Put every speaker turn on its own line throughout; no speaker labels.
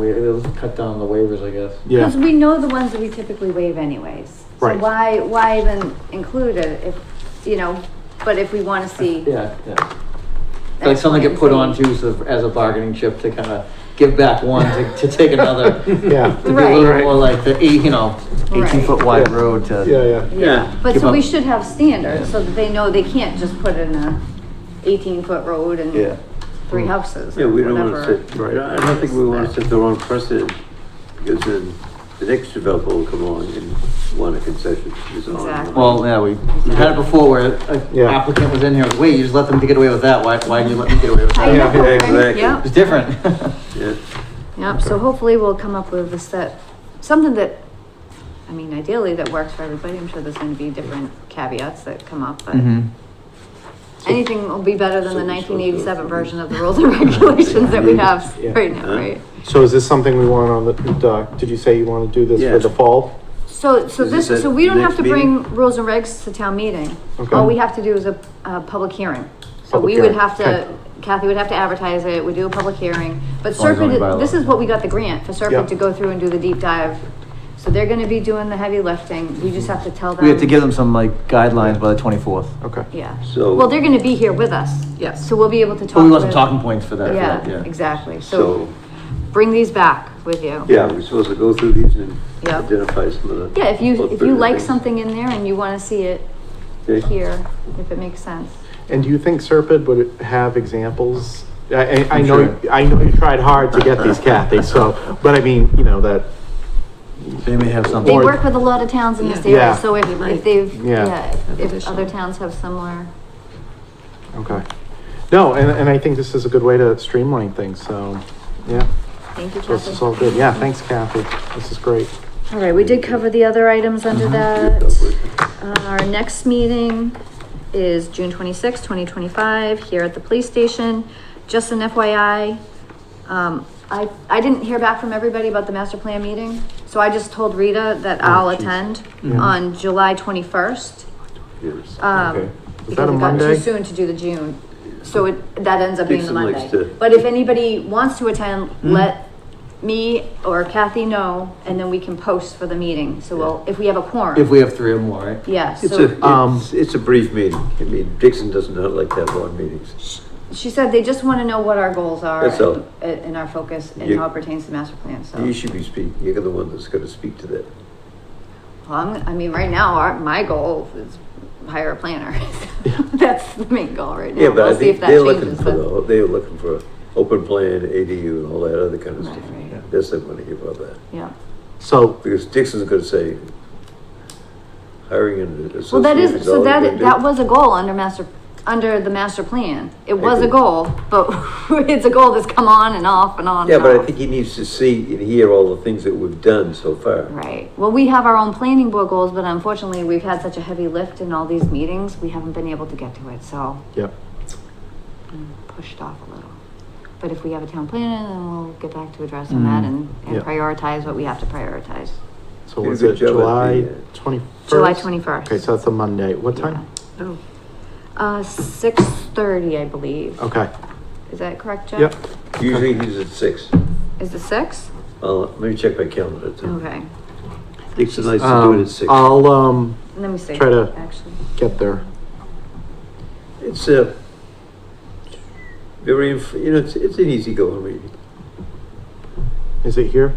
We, they'll just cut down the waivers, I guess.
Because
Yeah,
we know the ones that we typically waive anyways. So
Right.
why, why even include it if, you know, but if we want to see.
Yeah, yeah. Like something get put on too, so as a bargaining chip to kind of give back one to, to take another. To
yeah,
be a little
Right.
more like the, eight- you know, eighteen
Right.
foot wide
Yeah.
road to.
yeah, yeah.
Yeah, but
Give
so we
up.
should have standards so that they know they can't just put in a eighteen foot road
Yeah.
and three houses
Yeah,
or
we don't wanna
whatever.
set, I don't think we wanna set the wrong precedent, because then the next developer will come along and want a concession. is all.
Exactly.
Well, yeah, we, we had it before where an
Yeah.
applicant was in here, wait, you just let them get away with that, why, why did you let me get away with
I
that?
know,
Yeah,
right?
exactly.
Yep.
It's different.
Yeah,
Yep, so hopefully we'll come up with a set, something that, I mean, ideally that works for everybody. I'm sure there's gonna be different caveats that come up,
Mm-hmm.
but anything will be better than the nineteen eighty-seven version of the rules and regulations that we have
Yeah.
right now, right?
So is this something we want on the, doc? did you say you wanna do this
Yeah.
for the fall?
So, so
Is
this,
this at
so we don't have
next
to bring rules and regs to town meeting. All
Okay.
Oh, we have to do is a, a public hearing. So
Public
we would
hearing,
have
okay.
to, Kathy would have to advertise it, we do a public hearing. But
long as
Serpent,
only bylaw.
this is what we got the grant for
Yeah.
Serpent to go through and do the deep dive. So they're gonna be doing the heavy lifting, we just have to tell them.
We have to give them some like guidelines by the twenty-fourth.
Okay.
Yeah.
So-
Well, they're gonna be here with us.
Yes.
So we'll be able to talk.
But we want some
with-
talking points for that, for that,
Yeah,
yeah.
exactly.
so,
So bring these back with you.
yeah, we're supposed to go through these and
Yeah.
identify some of the.
Yeah, if you, if you
bigger
like
things.
something in there and you wanna see it
Okay.
here, if it makes sense.
And do you think Serpide would have examples? I, I, I
I'm
know,
sure.
I know you tried hard to get these Kathy, so, but I mean, you know, that,
They may have
They
Or-
something.
work with a lot of towns in this
Yeah.
area,
Yeah.
so if, if they've,
Yeah.
yeah, if- if other towns have similar,
okay. No, and, and I think this is a good way to streamline things, so, yeah,
thank you,
this is
Kathy.
all good. Yeah, thanks Kathy, this is great.
All right, we did cover the other items under that. Uh, Our next meeting is June twenty-sixth, twenty twenty-five, here at the police station. Just an FYI, um, I, I didn't hear back from everybody about the master plan meeting, so I just told Rita that I'll
geez.
attend
Yeah.
on July twenty-first.
Okay.
Yes.
Um,
Is that
because
a
it got too
Monday?
soon to do the June, so it, that ends up being the
Dixon likes
Monday.
to-
But if anybody wants to attend, let me or Kathy know, and then we can post for the meeting, so we'll, if we have a
If
quorum.
we have three or more, right?
Yeah,
It's
so
a,
Um,
it's, it's a brief meeting, I mean, Dixon does not like to have long meetings.
she said they just wanna know what our goals are
That's all.
and, and our focus and
You-
how it pertains to master plan, so.
You should be speaking, you're the one that's gonna speak to that.
Well, I'm, I mean, right now, our, my goal is hire a planner. That's the main goal right now.
Yeah, but I
We'll see if
think
that
they're looking
changes.
for,
but-
the- they're looking for open plan, ADU and all that other kind of
Right,
stuff.
right.
Yes, I'm gonna give up that,
Yeah.
So,
because Dixon's gonna say, hiring an associate.
Well, that is, so
all you're
that,
gonna do.
that was a goal under master, under the master plan. It was a
agree.
goal, but it's a goal that's come on and off and on
Yeah,
and
but I
off.
think he needs to see and hear all the things that we've done so far.
Right. Well, we have our own planning board goals, but unfortunately, we've had such a heavy lift in all these meetings, we haven't been able to get to it, so
yeah,
I'm pushed off a little. But if we have a town planner, then we'll get back to addressing that and, and
Yeah.
prioritize what we have to prioritize.
so
Did a
was
good
it
job at the,
July
uh,
twenty-first?
July 21st.
Okay, so that's a Monday, what time?
Oh. Uh, six thirty, I believe.
Okay,
Is that correct, Jeff?
yep,
Usually he's at six.
Is it six?
I'll, let me check my calendar. too.
Okay.
Dixon likes to do it
um,
at six.
I'll, um,
Let me see.
Try to-
Actually.
get there.
It's a very, inf- you know, it's, it's an easygoing meeting,
Is it here?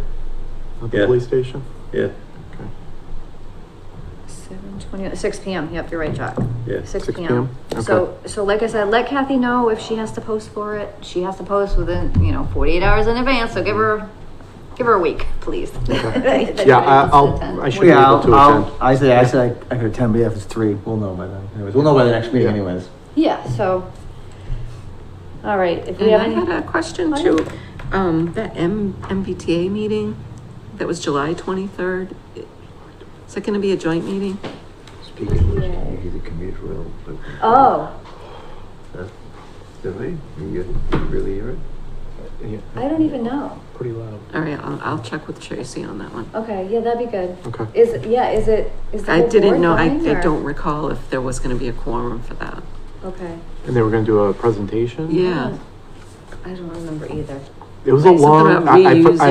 At the
Yeah.
police station?
yeah,
Seven twenty, uh, six P M, yep, you're right, Chuck.
yeah.
6
Six P
PM,
M. So, so like I said, let Kathy know if she has to post for it, she has to post within, you know, forty-eight hours in advance, so give her, give her a week, please.
Yeah, I- I'll, I should be
Yeah,
able
I'll,
to
I'll,
attend.
I said, I said I I could attend, but yeah, if it's three, we'll know by then. Anyways, we'll know by the next meeting
Yeah.
anyways.
Yeah, so. All right, if we
And
have
I
any.
had a question too. Um, that M, MBTA meeting, that was July twenty-third. Is that gonna be a joint meeting?
Speaking of which, you hear the commute rail. but-
Oh,
Did we? You you really hear it?
Yeah,
I don't even know.
Pretty loud.
All right, I'll, I'll check with Tracy on that one.
Okay, yeah, that'd be good.
Okay.
Is, it- yeah, is it, Oh, is the
I
whole
didn't
board
know, I,
going,
I
or-
don't recall if there was gonna be a quorum for that.
Okay.
And they were gonna do a presentation?
Yeah.
I don't remember either.
It was a
Something
long,
about
I, I,
reusing.
I